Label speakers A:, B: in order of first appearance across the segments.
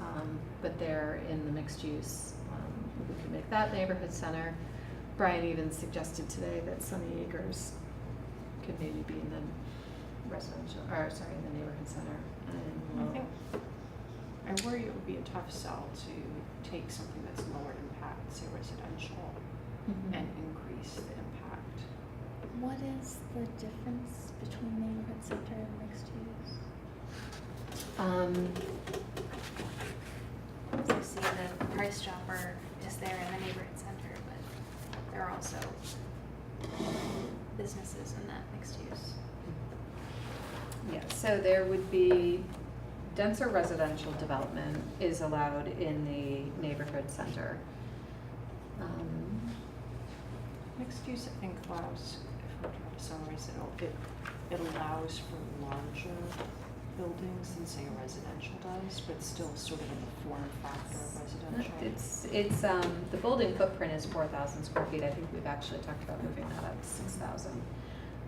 A: Um, but they're in the mixed use. Um, We could make that neighborhood center. Brian even suggested today that Sunny Acres could maybe be in the residential, or sorry, in the neighborhood center. And
B: I
A: we'll-
B: think, I worry it would be a tough sell to take something that's lower impact, say residential,
A: Mhm.
B: and increase the impact.
C: What is the difference between neighborhood center and mixed use?
A: Um,
C: So see, the Price Chopper is there in the neighborhood center, but there are also businesses in that mixed use.
A: Yeah, so there would be denser residential development is allowed in the neighborhood center. Um,
B: Mixed use, I think, allows, if I'm trying to summarize it, it, it allows for larger buildings than say a residential does, but still sort of in the form factor of residential.
A: It's, it's, um, the building footprint is four thousand square feet, I think we've actually talked about moving that up to six thousand.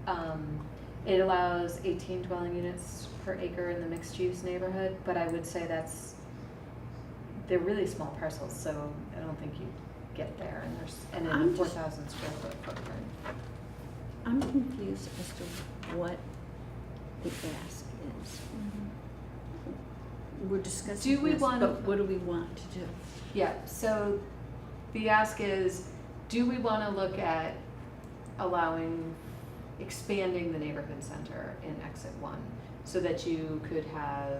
A: Um, it allows eighteen dwelling units per acre in the mixed-use neighborhood, but I would say that's, they're really small parcels, so I don't think you get there, and there's, and in
D: I'm
A: a four
D: just-
A: thousand square foot footprint.
D: I'm confused as to what the ask is. We're discussing
A: Do we
D: this,
A: want-
D: but what Mm-hmm. do we want to do?
A: Yeah, so the ask is, do we want to look at allowing, expanding the neighborhood center in exit one? So that you could have,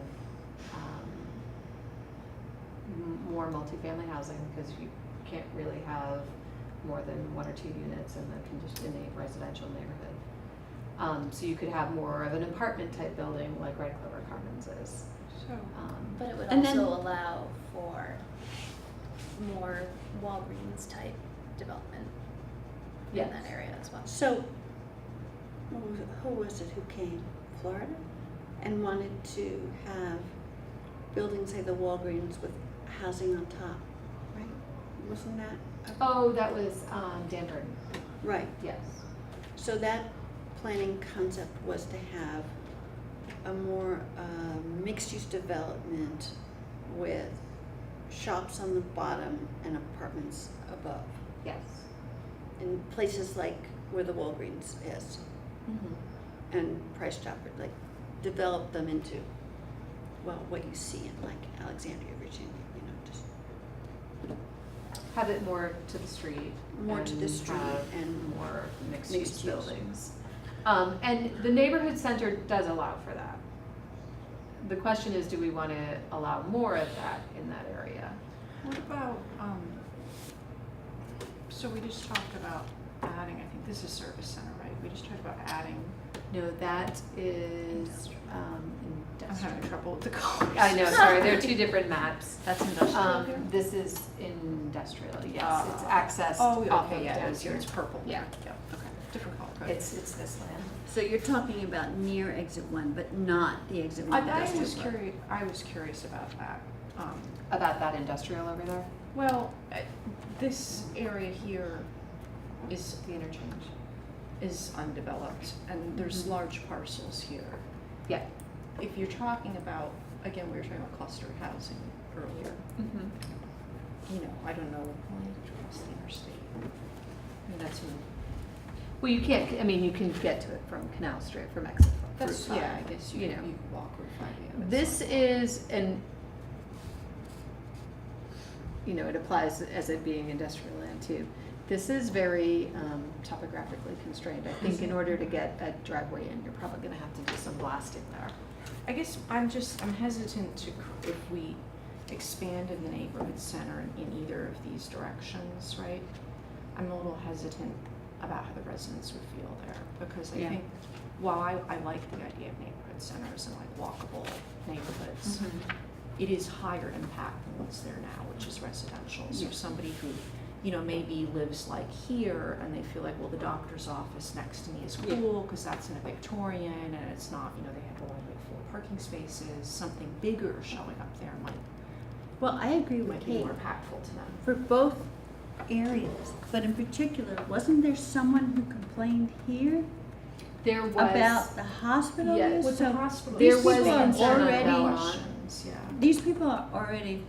A: um, m- more multifamily housing, because you can't really have more than one or two units in the condition, in a residential neighborhood. Um, so you could have more of an apartment type building like Red Clover Commons is,
B: So,
A: um.
C: But it would
D: And
C: also
D: then-
C: allow for more Walgreens type development in
A: yes.
C: that area as well.
D: So, who was- who was it who came? Florida? And wanted to have buildings, say the Walgreens with housing on top, right? Wasn't that? a-
A: Oh, that was, um, Dan Jordan.
D: Right,
A: Yes.
D: so that planning concept was to have a more uh, mixed-use development with shops on the bottom and apartments above,
A: Yes.
D: in places like where the Walgreens is. and Price Chopper, like develop them into, well, what you see in like Alexandria, Virginia, you know, just
A: Have it more to the street.
D: More to the
A: and
D: street
A: have
D: and
A: More mixed use
D: mixed use.
A: buildings. Um, and the neighborhood center does allow for that. The question is, do we wanna allow more of that in that area?
B: what about, um, so we just talked about adding, I think this is service center, right? We just talked about adding,
A: No, that is, um,
B: I'm having
A: industrial.
B: trouble with the colors.
A: I know, sorry, there are two different maps.
B: That's industrial
A: Um,
B: here?
A: this is industrial, yes, it's
B: Ah.
A: accessed
B: Oh, yeah,
A: off
B: okay,
A: of
B: yeah, it
A: down
B: is here,
A: here.
B: it's purple.
A: Yeah.
B: okay, different color code.
A: It's, it's this land.
D: So you're talking about near exit one, but not the exit
B: I,
D: one.
B: I
D: industrial
B: was
D: park.
B: curious, I was curious about that. Um,
A: About that industrial over there,
B: well, I- this area here is,
A: the interchange.
B: is undeveloped and there's
A: Mhm.
B: large parcels here.
A: Yeah.
B: If you're talking about, again, we were talking about cluster housing earlier,
A: Mm-hmm.
B: you know, I don't know, when you cross the interstate. I mean, that's,
A: Well, you can't, I mean, you can get to it from Canal Street, from exit from Route
B: that's,
A: five.
B: yeah, I guess you,
A: you
B: you
A: know.
B: could walk or five.
A: This is an, you know, it applies as it being industrial land too. This is very um, topographically constrained. I think in order to get a driveway in, you're probably gonna have to do some blasting there.
B: I guess I'm just, I'm hesitant to, cr- if we expand in the neighborhood center in- in either of these directions, right? I'm a little hesitant about how the residents would feel there, because I
D: Yeah.
B: think, while I, I like the idea of neighborhood centers and like walkable
A: Mm-hmm.
B: neighborhoods, it is higher impact than what's there now, which is residential. So
D: Yeah.
B: somebody who, you know, maybe lives like here and they feel like, well, the doctor's office next to me is
D: Yeah.
B: cool because that's in a Victorian and it's not, you know, they have only like four parking spaces. Something bigger showing up there might
D: Well, I agree with
B: might be
D: Kate
B: more impactful to them.
D: for both areas, but in particular, wasn't there someone who complained here
A: There was.
D: about the hospital?
A: Yes.
D: use?
B: With the
D: So
B: hospital,
D: These
A: There was
D: people are
A: concern
D: already-
A: about
B: yeah.
D: These people are already